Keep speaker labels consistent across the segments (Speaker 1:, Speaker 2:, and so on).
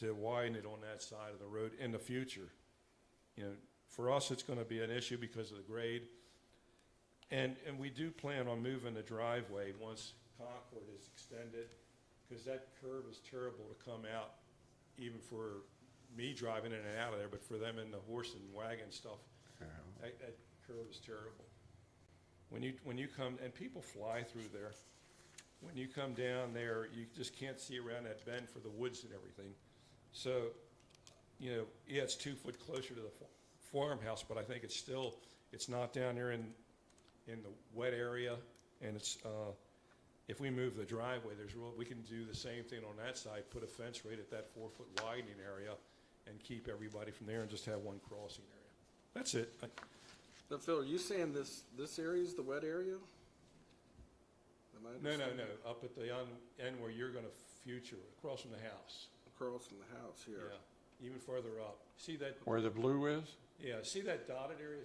Speaker 1: to widen it on that side of the road in the future. You know, for us, it's gonna be an issue because of the grade. And, and we do plan on moving the driveway once Concord is extended, because that curve is terrible to come out, even for me driving in and out of there, but for them in the horse and wagon stuff, that, that curve is terrible. When you, when you come, and people fly through there. When you come down there, you just can't see around that bend for the woods and everything. So, you know, yeah, it's two foot closer to the fa- farmhouse, but I think it's still, it's not down there in, in the wet area. And it's, uh, if we move the driveway, there's real, we can do the same thing on that side, put a fence right at that four foot widening area and keep everybody from there and just have one crossing area. That's it. I-
Speaker 2: Now, Phil, are you saying this, this area is the wet area? Am I
Speaker 1: No, no,
Speaker 2: understanding?
Speaker 1: no, up at the un- end where you're gonna future, across from the house.
Speaker 2: Across from the house here.
Speaker 1: Yeah, even further up. See that,
Speaker 3: Where the blue is?
Speaker 1: yeah, see that dotted area?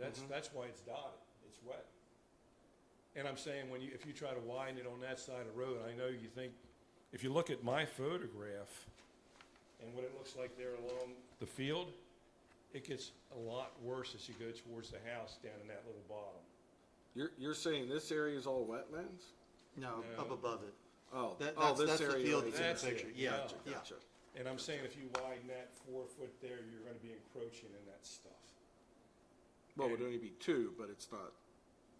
Speaker 1: That's, that's why it's dotted. It's wet. And I'm saying, when you, if you try to widen it on that side of the road, I know you think, if you look at my photograph and what it looks like there along the field, it gets a lot worse as you go towards the house down in that little bottom.
Speaker 2: You're, you're saying this area is all wetlands?
Speaker 4: No,
Speaker 1: No.
Speaker 4: up above it.
Speaker 2: Oh,
Speaker 4: That-
Speaker 2: oh,
Speaker 4: that's-
Speaker 2: this
Speaker 4: that's the
Speaker 2: area.
Speaker 4: field
Speaker 2: right here.
Speaker 4: that's in the
Speaker 1: That's it,
Speaker 4: picture. Yeah,
Speaker 1: Gotcha,
Speaker 4: yeah.
Speaker 2: Gotcha.
Speaker 1: And I'm saying if you widen that four foot there, you're gonna be encroaching in that stuff.
Speaker 2: Well, it'd only be two, but it's not,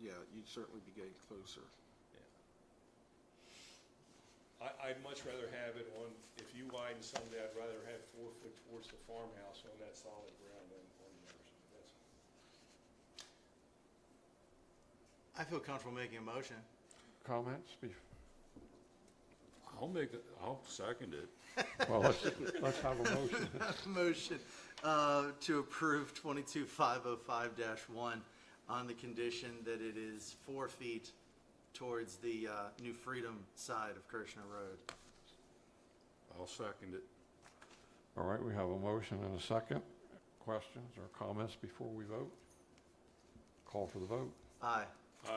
Speaker 2: yeah, you'd certainly be getting closer.
Speaker 1: I, I'd much rather have it on, if you widen someday, I'd rather have four foot towards the farmhouse on that solid ground than on the other side. That's,
Speaker 4: I feel comfortable making a motion.
Speaker 3: Comments? Be-
Speaker 5: I'll make, the- I'll second it.
Speaker 3: Well, let's, let's have a motion.
Speaker 4: Motion, uh, to approve twenty-two five oh five one on the condition that it is four feet towards the, uh, New Freedom side of Kirshner Road.
Speaker 5: I'll second it.
Speaker 3: All right, we have a motion and a second. Questions or comments before we vote? Call for the vote.
Speaker 4: Aye.
Speaker 5: Aye.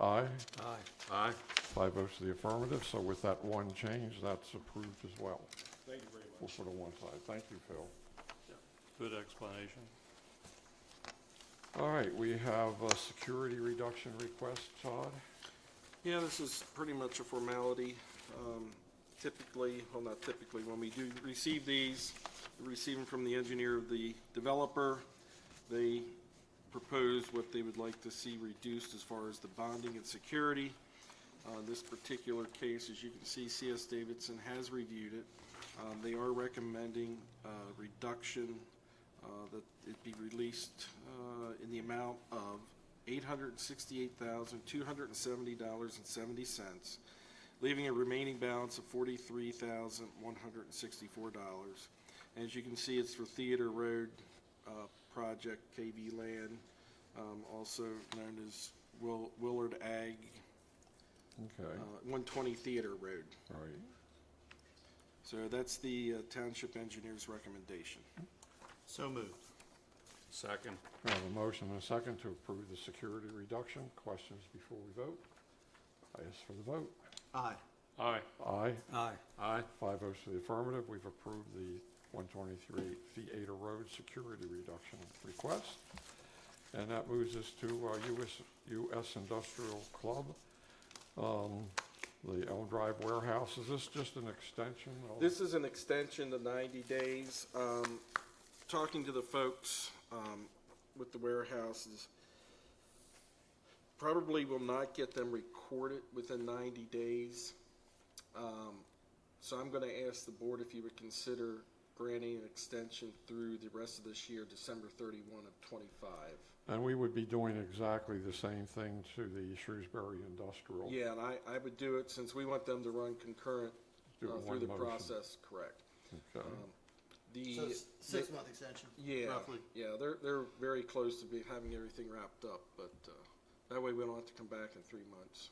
Speaker 3: Aye,
Speaker 4: Aye.
Speaker 5: Aye.
Speaker 3: five votes to the affirmative, so with that one change, that's approved as well.
Speaker 1: thank you very much.
Speaker 3: We'll put it on one side. Thank you, Phil.
Speaker 5: Good explanation.
Speaker 3: All right, we have a security reduction request, Todd.
Speaker 2: Yeah, this is pretty much a formality. Um, Typically, well, not typically, when we do receive these, we receive them from the engineer of the developer. They propose what they would like to see reduced as far as the bonding and security. Uh, This particular case, as you can see, CS Davidson has reviewed it. Um, They are recommending uh, reduction, uh, that it be released uh, in the amount of $868,270.70, leaving a remaining balance of $43,164. As you can see, it's for Theater Road uh, Project KV Land, um, also known as Will- Willard Ag,
Speaker 3: Okay,
Speaker 2: uh, 120 Theater Road.
Speaker 3: all right.
Speaker 2: So that's the uh, township engineer's recommendation.
Speaker 4: So moved.
Speaker 5: Second.
Speaker 3: We have a motion and a second to approve the security reduction. Questions before we vote? I ask for the vote.
Speaker 4: Aye.
Speaker 5: Aye.
Speaker 3: Aye,
Speaker 4: Aye.
Speaker 5: Aye.
Speaker 3: five votes to the affirmative. We've approved the 123 Theater Road security reduction request. And that moves us to uh, our US US Industrial Club, um, the Elm Drive Warehouse. Is this just an extension? of-
Speaker 2: This is an extension to 90 days. Um, Talking to the folks um, with the warehouses, probably will not get them recorded within 90 days. Um, So I'm going to ask the board if you would consider granting an extension through the rest of this year, December 31 of '25.
Speaker 3: And we would be doing exactly the same thing to the Shrewsbury Industrial.
Speaker 2: Yeah, and I, I would do it since we want them to run concurrent
Speaker 3: Do it
Speaker 2: uh,
Speaker 3: in
Speaker 2: through
Speaker 3: one
Speaker 2: the
Speaker 3: motion.
Speaker 2: process, correct.
Speaker 3: Okay.
Speaker 2: The.
Speaker 4: So it's six-month extension,
Speaker 2: Yeah,
Speaker 4: roughly.
Speaker 2: yeah, they're they're very close to be having everything wrapped up, but uh, that way we don't have to come back in three months.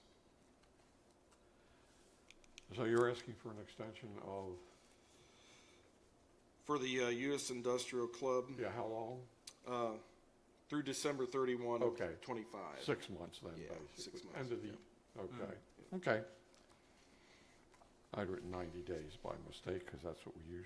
Speaker 3: So you're asking for an extension of,
Speaker 2: For the uh, U.S. Industrial Club,
Speaker 3: yeah, how long?
Speaker 2: uh, through December thirty-one of
Speaker 3: Okay.
Speaker 2: twenty-five.
Speaker 3: Six months then,
Speaker 2: Yeah,
Speaker 3: basically?
Speaker 2: six months, Mm.
Speaker 3: End of the, okay, okay. I'd written 90 days by mistake, because that's what we usually